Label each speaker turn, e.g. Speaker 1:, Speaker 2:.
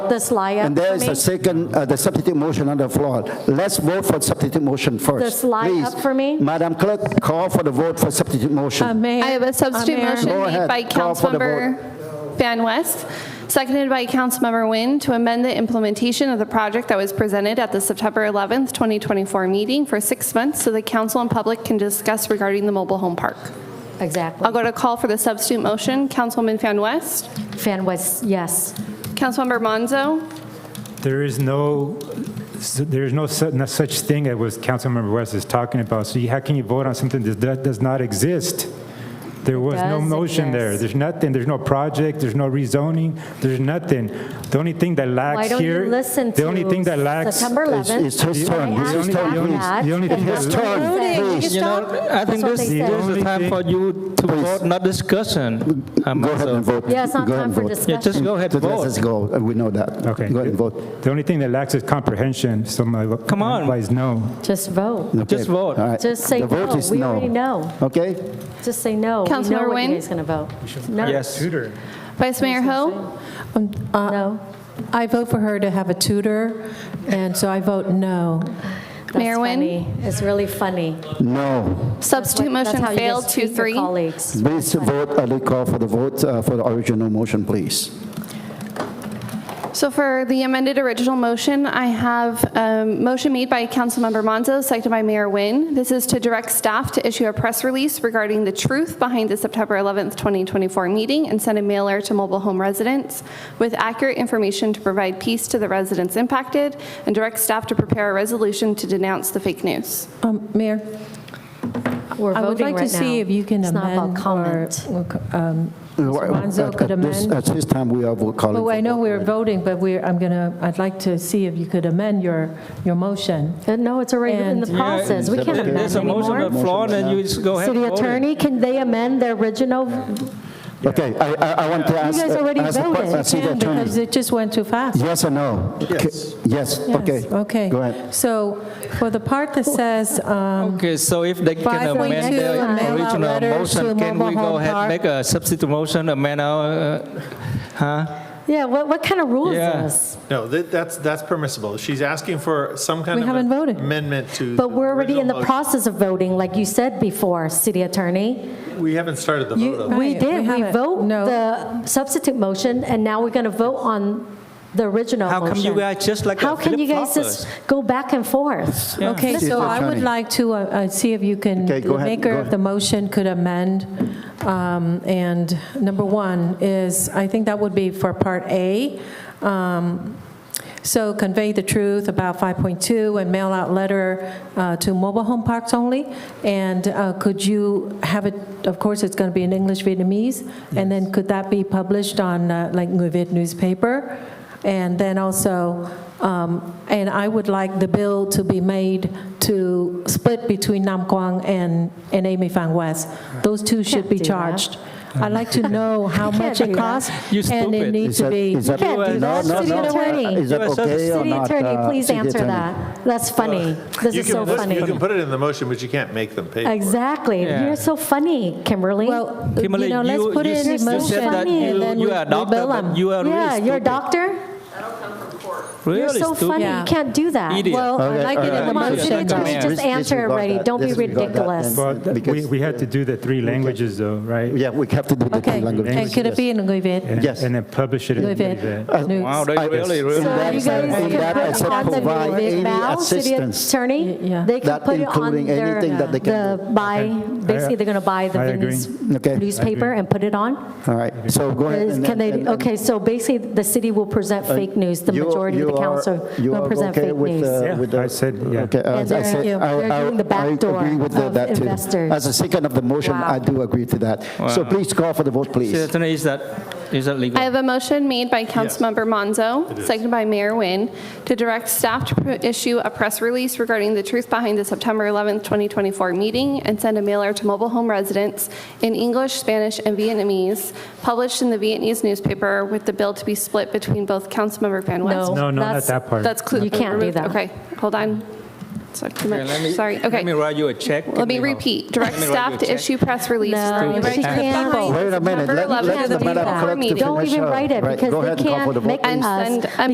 Speaker 1: this liar
Speaker 2: And there is
Speaker 1: for
Speaker 2: a
Speaker 1: me.
Speaker 2: second, uh, the substitute motion on the floor. Let's vote for substitute motion first.
Speaker 1: This lie up
Speaker 2: Please.
Speaker 1: for me? Um,
Speaker 2: Madam Clerk, call for the vote for substitute
Speaker 3: Uh,
Speaker 2: motion.
Speaker 3: Mayor-
Speaker 4: I have a substitute
Speaker 3: uh, Mayor,
Speaker 4: motion
Speaker 2: Go
Speaker 4: made
Speaker 2: ahead.
Speaker 4: by
Speaker 2: Call for the
Speaker 4: Councilmember Van West, seconded by Councilmember Nguyen to amend the implementation of the project that was presented at the September 11th, 2024 meeting for six months so the council and public can discuss regarding the mobile home park.
Speaker 1: Exactly.
Speaker 4: I'll go to call for the substitute motion. Councilwoman Van West,
Speaker 1: Fan was, yes.
Speaker 4: Councilmember Monzo,
Speaker 5: There is no, there is no su- no such thing that was Councilmember West is talking about. So you- how can you vote on something that does- does not exist? There was no
Speaker 1: does
Speaker 5: motion there.
Speaker 1: exist.
Speaker 5: There's nothing, there's no project, there's no rezoning, there's nothing. The only thing that
Speaker 1: Why
Speaker 5: lacks
Speaker 1: don't
Speaker 5: here.
Speaker 1: you listen to
Speaker 5: The only thing that lacks.
Speaker 1: September
Speaker 2: It's
Speaker 1: 11th?
Speaker 2: it's his
Speaker 1: I
Speaker 2: turn, it's
Speaker 1: asked
Speaker 2: his
Speaker 5: only-
Speaker 2: turn,
Speaker 1: about
Speaker 5: only-
Speaker 2: please.
Speaker 1: that,
Speaker 5: the only
Speaker 1: and
Speaker 5: thing
Speaker 1: that's
Speaker 5: that
Speaker 1: what
Speaker 2: lacks-
Speaker 1: voted.
Speaker 2: Voting, you
Speaker 1: That's
Speaker 6: You know, I think
Speaker 1: what
Speaker 6: this,
Speaker 1: they
Speaker 6: this
Speaker 1: said.
Speaker 6: is the time for you to
Speaker 2: Please.
Speaker 6: vote, not discussion. uh,
Speaker 2: Go ahead
Speaker 6: Mazel.
Speaker 2: and vote.
Speaker 1: Yeah, it's not
Speaker 2: Go ahead
Speaker 1: time
Speaker 2: and
Speaker 1: for
Speaker 2: vote.
Speaker 1: discussion.
Speaker 6: just go ahead,
Speaker 2: Just Let
Speaker 6: vote.
Speaker 2: us go, Uh, we know that.
Speaker 5: Okay.
Speaker 2: Go ahead and vote.
Speaker 5: The only thing that lacks is comprehension, so my.
Speaker 6: Come on.
Speaker 5: Otherwise, no.
Speaker 1: Just vote.
Speaker 2: Okay.
Speaker 6: Just vote.
Speaker 2: All right.
Speaker 1: Just say
Speaker 2: The vote
Speaker 1: no.
Speaker 2: is
Speaker 1: We already know.
Speaker 2: Okay?
Speaker 1: Just say no. We know
Speaker 4: Councilmember
Speaker 1: what you
Speaker 4: Nguyen?
Speaker 1: guys going to vote. No.
Speaker 6: Yes.
Speaker 5: Tutor.
Speaker 4: Vice Mayor Ho,
Speaker 3: um, uh,
Speaker 1: No.
Speaker 3: I vote for her to have a tutor, and so I vote no.
Speaker 1: That's
Speaker 4: Mayor Nguyen?
Speaker 1: funny. It's really funny.
Speaker 2: No.
Speaker 4: substitute
Speaker 1: That's
Speaker 4: motion
Speaker 1: how you
Speaker 4: failed
Speaker 1: just treat your
Speaker 4: 2-3.
Speaker 1: Colleagues.
Speaker 2: Please vote, I will call for the vote uh, for the original motion, please.
Speaker 4: So for the amended original motion, I have a motion made by Councilmember Monzo, seconded by Mayor Nguyen. This is to direct staff to issue a press release regarding the truth behind the September 11th, 2024 meeting and send a mailer to mobile home residents with accurate information to provide peace to the residents impacted and direct staff to prepare a resolution to denounce the fake news.
Speaker 3: Um, Mayor,
Speaker 1: We're
Speaker 3: I would
Speaker 1: voting
Speaker 3: like to
Speaker 1: right
Speaker 3: see
Speaker 1: now.
Speaker 3: if you can
Speaker 1: It's not about
Speaker 3: amend or...
Speaker 1: comment.
Speaker 3: um, Mr. Monzo
Speaker 2: Uh, At-
Speaker 3: could
Speaker 2: at this-
Speaker 3: amend.
Speaker 2: At this time, we are vo- calling.
Speaker 1: Oh,
Speaker 3: Well,
Speaker 2: for
Speaker 3: I know
Speaker 2: vote.
Speaker 3: we're voting, but we're, I'm going to, I'd like to see if you could amend your, your motion.
Speaker 1: Uh, No, it's already in the
Speaker 3: And-
Speaker 1: process. We can't amend
Speaker 6: There's a motion on
Speaker 1: anymore.
Speaker 6: the floor, then you just go ahead.
Speaker 1: City
Speaker 6: and vote it.
Speaker 1: attorney, can they amend their original?
Speaker 2: Okay, I, I I want to ask.
Speaker 1: guys already
Speaker 2: ask the que-
Speaker 1: voted.
Speaker 2: uh, City
Speaker 3: Yeah, Because
Speaker 2: attorney,
Speaker 3: it just went too fast.
Speaker 2: yes or no? Yes. Yes,
Speaker 3: Yes,
Speaker 2: okay.
Speaker 3: Okay.
Speaker 2: Go ahead.
Speaker 3: So for the part that says, um,
Speaker 6: Okay, so if they can
Speaker 3: Five point
Speaker 6: amend
Speaker 3: two,
Speaker 6: the
Speaker 3: mail out
Speaker 6: original
Speaker 3: letters to
Speaker 6: motion, can we
Speaker 3: mobile home
Speaker 6: go ahead,
Speaker 3: park.
Speaker 6: and make a substitute motion, amend our, uh, huh?
Speaker 1: Yeah, what, what kind of rule is
Speaker 6: Yeah.
Speaker 1: this?
Speaker 7: No, that- that's, that's permissible. She's asking for some kind
Speaker 3: We
Speaker 7: of
Speaker 3: haven't
Speaker 7: an
Speaker 3: voted.
Speaker 7: amendment to.
Speaker 1: But we're already in the
Speaker 7: original
Speaker 1: process of voting, like you said before, city attorney.
Speaker 7: motion. We haven't started the vote on it.
Speaker 1: We
Speaker 3: Right,
Speaker 1: did,
Speaker 3: we
Speaker 1: we
Speaker 3: haven't.
Speaker 1: vote
Speaker 3: No.
Speaker 1: the substitute motion, and now we're going to vote on the original
Speaker 6: How
Speaker 1: motion.
Speaker 6: come you guys just like a
Speaker 1: How can you guys
Speaker 6: flip-floppers?
Speaker 1: just go back and forth?
Speaker 3: okay,
Speaker 2: City
Speaker 3: so I would
Speaker 2: attorney.
Speaker 3: like to uh, uh, see if you can,
Speaker 2: Okay, go
Speaker 3: the
Speaker 2: ahead,
Speaker 3: maker
Speaker 2: go
Speaker 3: of the motion could amend. Um, And number one is, I think that would be for Part A. Um, So convey the truth about 5.2 and mail out letter uh, to mobile home parks only. And uh, could you have it, of course, it's going to be in English Vietnamese, and then could that be published on uh, like Người Việt newspaper? And then also, um, and I would like the bill to be made to split between Nam Quang and, and Amy Fang West. Those two should be
Speaker 1: do that.
Speaker 3: charged. I'd like to know how much
Speaker 1: do
Speaker 3: it
Speaker 1: that.
Speaker 3: costs.
Speaker 6: You
Speaker 3: And it
Speaker 6: stupid.
Speaker 3: needs
Speaker 2: Is
Speaker 3: to
Speaker 2: that-
Speaker 3: be.
Speaker 2: is that-
Speaker 1: Can't do
Speaker 2: no,
Speaker 1: that.
Speaker 2: no,
Speaker 1: City
Speaker 2: no.
Speaker 1: attorney.
Speaker 2: Is that
Speaker 6: You are so-
Speaker 2: okay or
Speaker 1: City
Speaker 2: not?
Speaker 1: attorney,
Speaker 2: uh,
Speaker 1: please
Speaker 2: city
Speaker 1: answer
Speaker 2: attorney?
Speaker 1: that. That's funny. This
Speaker 7: You
Speaker 1: is so
Speaker 7: can, list- you
Speaker 1: funny.
Speaker 7: can put it in the motion, but you can't make them pay for it.
Speaker 1: Exactly.
Speaker 6: Yeah.
Speaker 1: You're so funny, Kimberly.
Speaker 3: Well, you
Speaker 6: Kimberly,
Speaker 3: know, let's
Speaker 6: you-
Speaker 3: put
Speaker 6: you
Speaker 3: it
Speaker 6: said-
Speaker 3: in
Speaker 6: you said
Speaker 3: motion
Speaker 1: that you-
Speaker 3: and then we
Speaker 6: you
Speaker 3: we
Speaker 6: are a doctor,
Speaker 3: bill
Speaker 6: but
Speaker 3: them.
Speaker 6: you are really
Speaker 1: Yeah, you're a
Speaker 6: stupid.
Speaker 1: doctor? You're
Speaker 6: Really
Speaker 1: so funny.
Speaker 6: stupid.
Speaker 1: You can't do that.
Speaker 6: Idiot.
Speaker 3: Well, I
Speaker 2: Okay, all
Speaker 3: like it in the
Speaker 2: right.
Speaker 1: Come on,
Speaker 6: Motion
Speaker 1: city
Speaker 6: and
Speaker 3: motion.
Speaker 1: attorney,
Speaker 6: amend.
Speaker 1: just
Speaker 2: Disregard
Speaker 1: answer
Speaker 2: that.
Speaker 1: already. Don't be
Speaker 2: Disregard that
Speaker 1: ridiculous.
Speaker 2: then.
Speaker 5: Well, th- we,
Speaker 2: Because-
Speaker 5: we had to do the three languages though, right?
Speaker 2: Yeah, we have to do the
Speaker 3: Okay,
Speaker 2: three languages.
Speaker 3: and could it be in Người Việt?
Speaker 5: And-
Speaker 2: Yes.
Speaker 5: And then publish it in
Speaker 3: Người Việt
Speaker 5: the
Speaker 3: news?
Speaker 6: Wow, they
Speaker 2: I-
Speaker 6: Oh, really, really.
Speaker 2: in
Speaker 1: So
Speaker 2: that-
Speaker 1: you guys
Speaker 2: in
Speaker 1: can
Speaker 2: that I
Speaker 1: put
Speaker 2: said
Speaker 1: it on the
Speaker 2: provide
Speaker 1: Norwegian
Speaker 2: any
Speaker 1: Vow, city
Speaker 2: assistance.
Speaker 1: attorney.
Speaker 3: Y- yeah.
Speaker 1: They can
Speaker 2: That
Speaker 1: put it on
Speaker 2: including
Speaker 1: their, uh,
Speaker 2: anything that they can
Speaker 1: the buy, basically, they're going to buy the
Speaker 5: I agree.
Speaker 2: Okay.
Speaker 1: Vietnamese newspaper and put it on?
Speaker 2: All right, so go ahead.
Speaker 1: Is-
Speaker 2: and-
Speaker 1: Can they,
Speaker 2: and- and-
Speaker 1: okay, so basically, the city will present fake news, the
Speaker 2: You-
Speaker 1: majority of
Speaker 2: you
Speaker 1: the
Speaker 2: are-
Speaker 1: council
Speaker 2: you
Speaker 1: will
Speaker 2: are
Speaker 1: present
Speaker 2: okay
Speaker 1: fake
Speaker 2: with uh,
Speaker 1: news.
Speaker 2: the-
Speaker 5: Yeah,
Speaker 2: with the-
Speaker 5: I said, yeah.
Speaker 2: Okay, I-
Speaker 1: And they're-
Speaker 2: I said,
Speaker 1: yeah,
Speaker 2: I-
Speaker 1: they're
Speaker 2: I-
Speaker 1: doing the back
Speaker 2: I
Speaker 1: door
Speaker 2: agree with
Speaker 1: of
Speaker 2: that too.
Speaker 1: investors.
Speaker 2: As a second of the motion,
Speaker 1: Wow.
Speaker 2: I do agree to that. So
Speaker 6: Wow.
Speaker 2: please call for the vote,
Speaker 6: City
Speaker 2: please.
Speaker 6: attorney, is that, is that legal?
Speaker 4: I have a motion made by Councilmember Monzo, seconded by Mayor Nguyen, to direct staff to pr- issue a press release regarding the truth behind the September 11th, 2024 meeting and send a mailer to mobile home residents in English, Spanish, and Vietnamese, published in the Vietnamese newspaper with the bill to be split between both Councilmember Van West.
Speaker 5: No, no,
Speaker 1: That's-
Speaker 5: not that part.
Speaker 4: That's clear.
Speaker 1: You can't do that.
Speaker 4: Okay, hold on. So too
Speaker 6: Okay, let me-
Speaker 4: much. Sorry,
Speaker 6: Let me
Speaker 4: okay.
Speaker 6: write you a check.
Speaker 4: Let me
Speaker 6: Kimberly Ho.
Speaker 4: repeat. Direct
Speaker 6: Let me write
Speaker 4: staff
Speaker 6: you a
Speaker 4: to
Speaker 6: check.
Speaker 4: issue press releases.
Speaker 1: No,
Speaker 4: regarding
Speaker 1: she
Speaker 4: the
Speaker 1: can't.
Speaker 4: September
Speaker 2: Wait a minute, let
Speaker 4: 11th,
Speaker 2: let the
Speaker 4: 2024
Speaker 2: Madam Clerk to
Speaker 4: meeting.
Speaker 2: finish.
Speaker 1: Don't even
Speaker 2: her-
Speaker 1: write it
Speaker 2: right,
Speaker 1: because
Speaker 2: go
Speaker 1: they
Speaker 2: ahead and call
Speaker 1: can't
Speaker 2: for the vote,
Speaker 1: make
Speaker 2: please.
Speaker 4: And
Speaker 1: us-
Speaker 4: send a